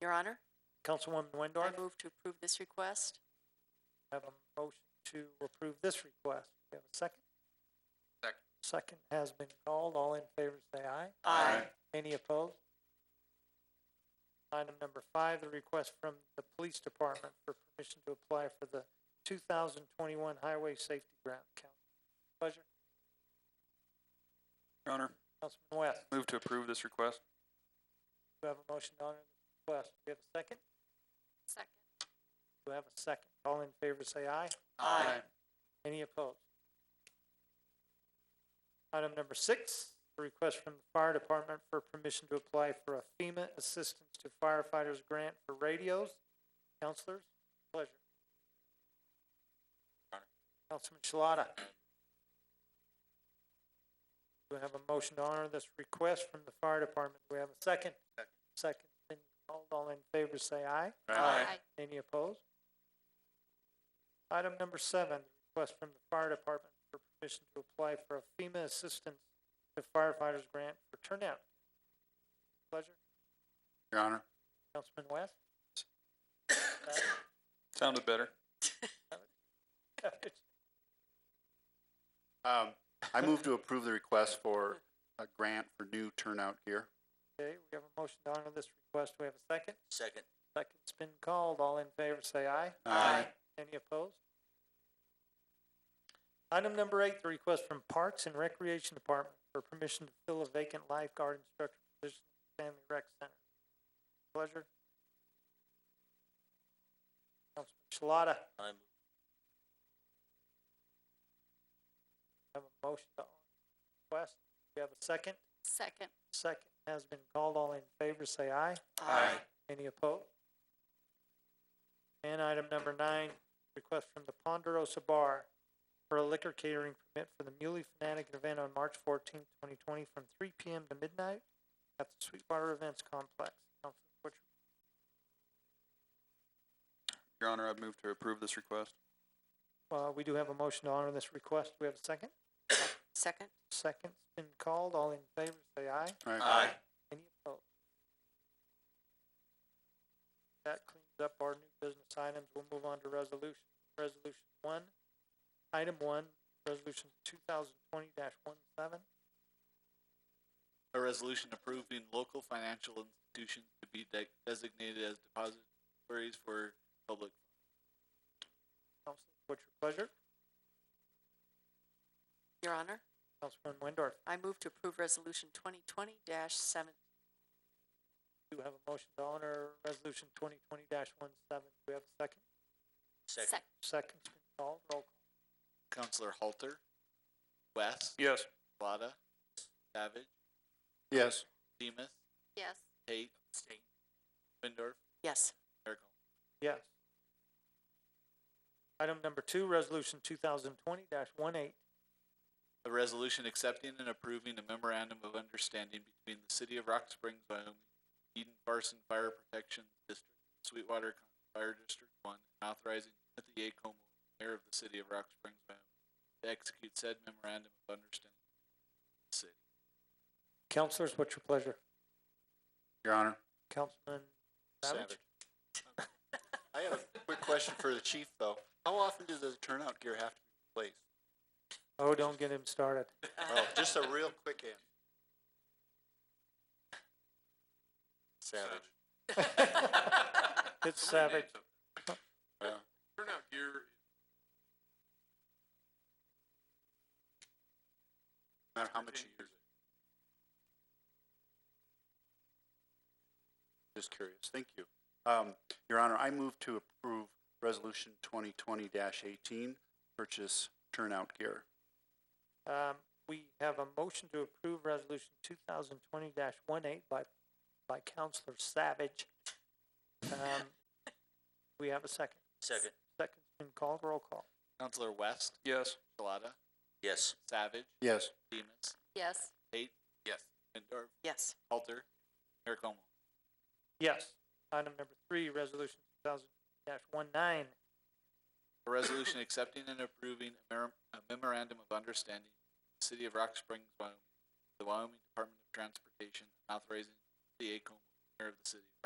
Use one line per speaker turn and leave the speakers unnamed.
Your Honor,
Councilwoman
I
Windorf,
move to approve this request.
have a motion to approve this request. Do you have a second?
Second.
Second has been called. All in favor, say aye.
Aye.
Any opposed? Item number five, the request from the police department for permission to apply for the two thousand twenty-one highway safety grant. Council, pleasure.
Your Honor,
Councilman West,
move to approve this request.
do you have a motion to honor the request? Do you have a second?
Second.
Do you have a second? All in favor, say aye.
Aye.
Any opposed? Item number six, a request from the fire department for permission to apply for a FEMA assistance to firefighters grant for radios. Counselors, pleasure. Councilman Shalata. Do we have a motion to honor this request from the fire department? Do we have a second?
Second.
Second, been called. All in favor, say aye.
Aye.
Any opposed? Item number seven, request from the fire department for permission to apply for a FEMA assistance to firefighters grant for turnout. Pleasure,
Your Honor,
Councilman West?
sounded better.
Um, I move to approve the request for a grant for new turnout gear.
Okay, we have a motion to honor this request. Do we have a second?
Second.
Second's been called. All in favor, say aye.
Aye.
Any opposed? Item number eight, the request from Parks and Recreation Department for permission to fill a vacant lifeguard instructor position at Family Rec Center. Pleasure. Councilman Shalata.
I move.
Have a motion to honor the request. Do you have a second?
Second.
Second has been called. All in favor, say aye.
Aye.
Any opposed? And item number nine, request from the Ponderosa Bar for a liquor catering permit for the Muley Fanatic event on March fourteenth, twenty twenty, from three P M. to midnight at the Sweetwater Events Complex. Councilman Butcher,
Your Honor, I move to approve this request.
Uh, we do have a motion to honor this request. Do we have a second?
Second.
Second's been called. All in favor, say aye.
Aye.
Any opposed? That cleans up our new business items. We'll move on to resolution. Resolution one, item one, resolution two thousand twenty dash one seven.
A resolution approving local financial institutions to be de- designated as depositories for public.
Council, what's your pleasure?
Your Honor,
Councilman Windorf,
I move to approve Resolution twenty twenty dash seven.
do you have a motion to honor resolution twenty twenty dash one seven? Do we have a second?
Second.
Second's been called. Roll call.
Counselor Halter, West,
Yes.
Shalata, Savage,
Yes.
Demus,
Yes.
Tate, Windorf,
Yes.
Merkel.
Yes. Item number two, resolution two thousand twenty dash one eight.
A resolution accepting and approving a memorandum of understanding between the city of Rock Springs, Wyoming, Eden Farson Fire Protection District, Sweetwater County Fire District One, and authorizing Timothy A. Como, mayor of the city of Rock Springs, Wyoming, to execute said memorandum of understanding. with the City.
Councilors, what's your pleasure?
Your Honor.
Councilman Savage?
Savage. I have a quick question for the chief, though. How often does the turnout gear have to be replaced?
Oh, don't get him started.
Oh, just a real quick answer. Savage.
It's savage.
Yeah.
Turnout gear.
No matter how much you use it. Just curious. Thank you. Um, Your Honor, I move to approve Resolution twenty twenty eighteen, purchase turnout gear.
Um, we have a motion to approve resolution two thousand twenty dash one eight by, by Counselor Savage. Um, we have a second.
Second.
Second's been called, roll call.
Counselor West,
Yes.
Shalata,
Yes.
Savage,
Yes.
Demus,
Yes.
Tate.
Yes.
Windorf,
Yes.
Halter, Mayor Como.
Yes. Item number three, resolution two thousand dash one nine.
A resolution accepting and approving a mer- a memorandum of understanding with the City of Rock Springs, Wyoming, the Wyoming Department of Transportation, authorizing the ACOM, mayor of the city of Rock